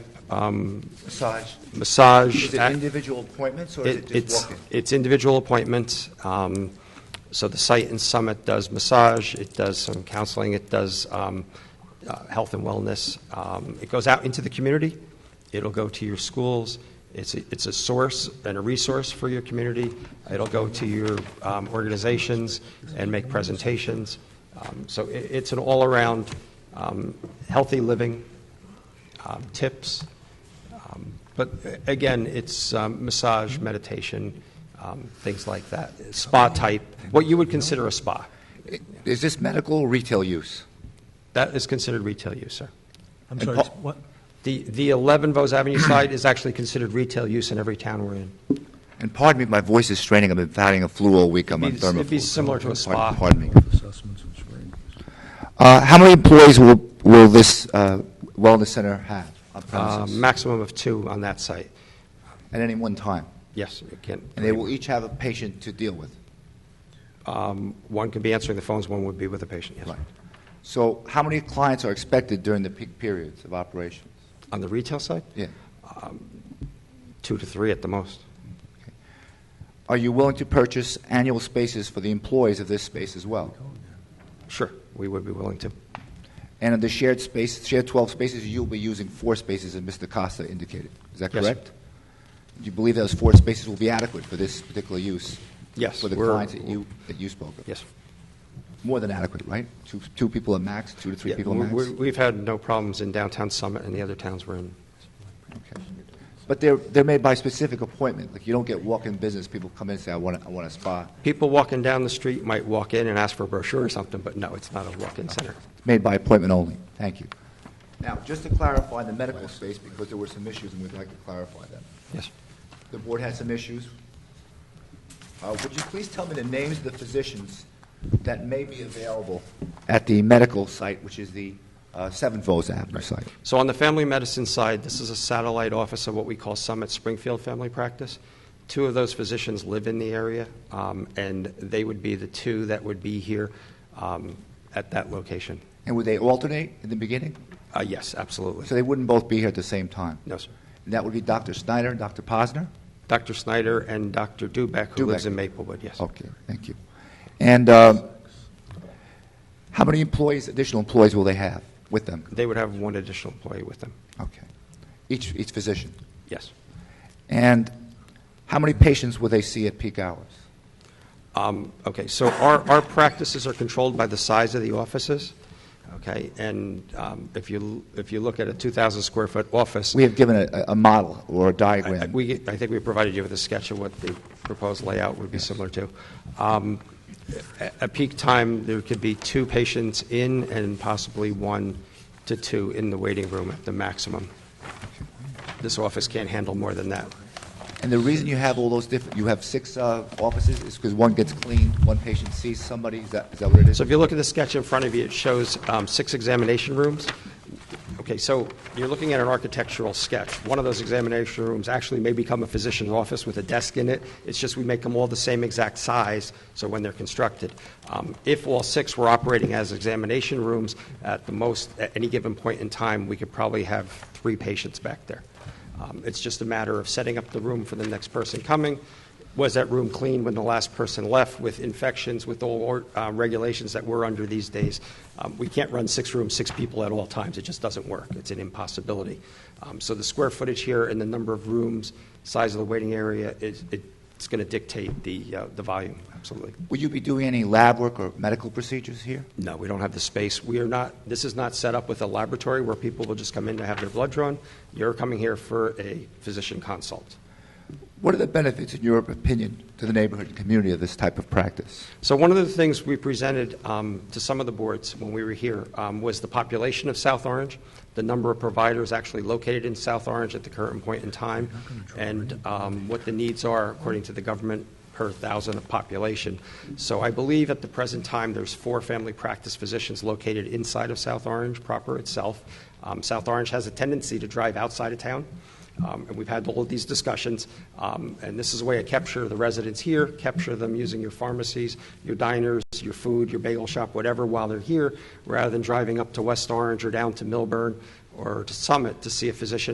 um, Massage. massage. Is it individual appointments or is It- it It's, just walk-in? it's individual appointments. um, So the site and summit does massage, it does some counseling, it does um, uh, health and wellness. Um, It goes out into the community, it'll go to your schools, it's, a- it's a source and a resource for your community. It'll go to your um, organizations and make presentations. Um, So i it's an all-around um, healthy living, um, tips. Um, But uh, again, it's um, massage, meditation, um, things like that, spa type, what you would consider a spa. Is this medical or retail use? That is considered retail use, sir. I'm And sorry, Paul- it's what? The, the 11 Vos Avenue side is actually considered retail use in every town we're in. And pardon me, my voice is straining. I've been fighting a flu all week. I'm on It'd be- thermoflu. it'd be similar to a spa. Pardon- Pardon me. Assessments and swearing. Uh, How many employees will, will this uh, wellness center have on Uh, premises? Maximum of two on that site. At any one time? Yes, it can. And they will each have a patient to deal with? Um, One can be answering the phones, one would be with a patient, yes. Right. So how many clients are expected during the peak periods of operation? On the retail side, Yeah. two to three at the most. Are you willing to purchase annual spaces for the employees of this space as well? Sure, we would be willing to. And of the shared space, shared 12 spaces, you'll be using four spaces, as Mr. Costa indicated. Is that Yes, sir. correct? Do you believe those four spaces will be adequate for this particular use? Yes, For the we're- clients that you, that you spoke of? Yes. More than adequate, right? Two, two people at max, two to three Yeah, people we- at max? we- We've had no problems in downtown Summit and the other towns we're in. Okay. But they're, they're made by specific appointment. Like, you don't get walk-in business, people come in and say, I want, I want a spa. People walking down the street might walk in and ask for a brochure or something, but no, it's not a walk-in center. It's made by appointment only. Thank you. Now, just to clarify the medical space, because there were some issues, and we'd like to clarify them. Yes. The board had some issues. Uh, Would you please tell me the names of the physicians that may be available at the medical site, which is the uh, Seven Falls Avenue site? So on the family medicine side, this is a satellite office of what we call Summit Springfield Family Practice. Two of those physicians live in the area, um, and they would be the two that would be here um, at that location. And would they alternate in the beginning? Uh, Yes, absolutely. So they wouldn't both be here at the same time? No, sir. And that would be Dr. Snyder and Dr. Posner? Dr. Snyder and Dr. Dubek, who lives Dubek. in Maplewood, yes. Okay, thank you. And um, how many employees, additional employees will they have with them? They would have one additional employee with them, Okay. Each, each physician? yes. And how many patients will they see at peak hours? Um, Okay, so our, our practices are controlled by the size of the offices, okay? And um, if you, if you look at a 2,000-square-foot office, We have given a, a model or a I- I- diagram. we, I think we provided you with a sketch of what the proposed layout would be similar to. Um, a- At peak time, there could be two patients in and possibly one to two in the waiting room at the maximum. This office can't handle more than that. And the reason you have all those different, you have six uh, offices is because one gets cleaned, one patient sees somebody, is that, is that what it is? So if you look at the sketch in front of you, it shows um, six examination rooms. Okay, so you're looking at an architectural sketch. One of those examination rooms actually may become a physician's office with a desk in it. It's just we make them all the same exact size, so when they're constructed. Um, If all six were operating as examination rooms, at the most, at any given point in time, we could probably have three patients back there. Um, It's just a matter of setting up the room for the next person coming. Was that room clean when the last person left with infections, with all uh, regulations that we're under these days? Um, We can't run six rooms, six people at all times. It just doesn't work. It's an impossibility. Um, So the square footage here and the number of rooms, size of the waiting area, is it's going to dictate the uh, the volume, absolutely. Will you be doing any lab work or medical procedures here? No, we don't have the space. We are not, this is not set up with a laboratory where people will just come in to have their blood drawn. You're coming here for a physician consult. What are the benefits, in your opinion, to the neighborhood and community of this type of practice? So one of the things we presented um, to some of the boards when we were here um, was the population of South Orange, the number of providers actually located in South Orange at the current point in time, and um, what the needs are according to the government per thousand of population. So I believe at the present time, there's four family practice physicians located inside of South Orange proper itself. Um, South Orange has a tendency to drive outside of town. Um, And we've had all of these discussions, um, and this is a way to capture the residents here, capture them using your pharmacies, your diners, your food, your bagel shop, whatever, while they're here, rather than driving up to West Orange or down to Millburn or to Summit to see a physician